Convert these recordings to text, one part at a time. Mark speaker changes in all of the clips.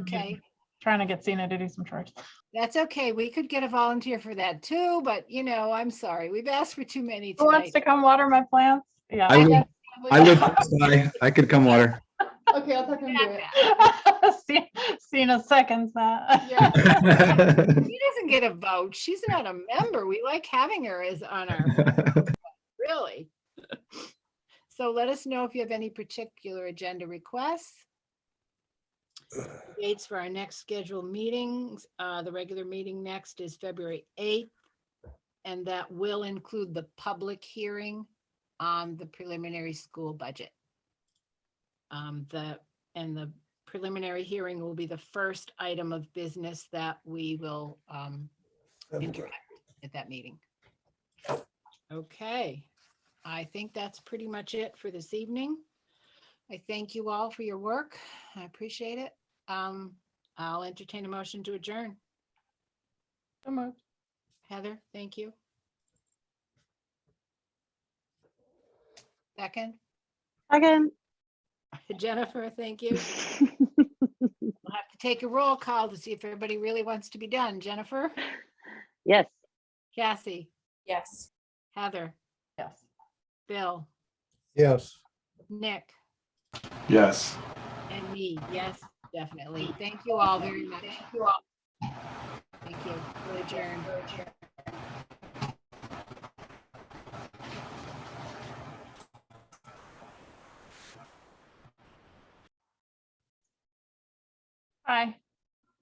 Speaker 1: okay.
Speaker 2: trying to get Cena to do some chores.
Speaker 1: That's okay. We could get a volunteer for that too, but you know, I'm sorry. We've asked for too many
Speaker 2: Who wants
Speaker 1: tonight.
Speaker 2: to come water my plants?
Speaker 3: I
Speaker 2: Yeah.
Speaker 3: live, I live, outside. I could come water.
Speaker 4: Okay, I'll talk him do it.
Speaker 2: Ce- Cena seconds that.
Speaker 4: Yeah.
Speaker 1: She doesn't get a vote. She's not a member. We like having her as on our, really. So let us know if you have any particular agenda requests. Dates for our next scheduled meetings, uh, the regular meeting next is February eighth. And that will include the public hearing on the preliminary school budget. Um, the, and the preliminary hearing will be the first item of business that we will um interact at that meeting. Okay, I think that's pretty much it for this evening. I thank you all for your work. I appreciate it. Um, I'll entertain a motion to adjourn.
Speaker 2: So moved.
Speaker 1: Heather, thank you. Second,
Speaker 5: Again.
Speaker 1: Jennifer, thank you. We'll have to take a roll call to see if everybody really wants to be done. Jennifer,
Speaker 5: Yes.
Speaker 1: Cassie,
Speaker 4: Yes.
Speaker 1: Heather,
Speaker 2: Yes.
Speaker 1: Bill,
Speaker 6: Yes.
Speaker 1: Nick,
Speaker 3: Yes.
Speaker 1: and me. Yes, definitely. Thank you all very much. Thank you all. Thank you. We're adjourned.
Speaker 2: Hi.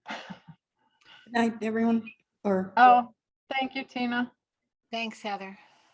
Speaker 7: Good night, everyone, or
Speaker 2: Oh, thank you, Tina.
Speaker 1: Thanks, Heather.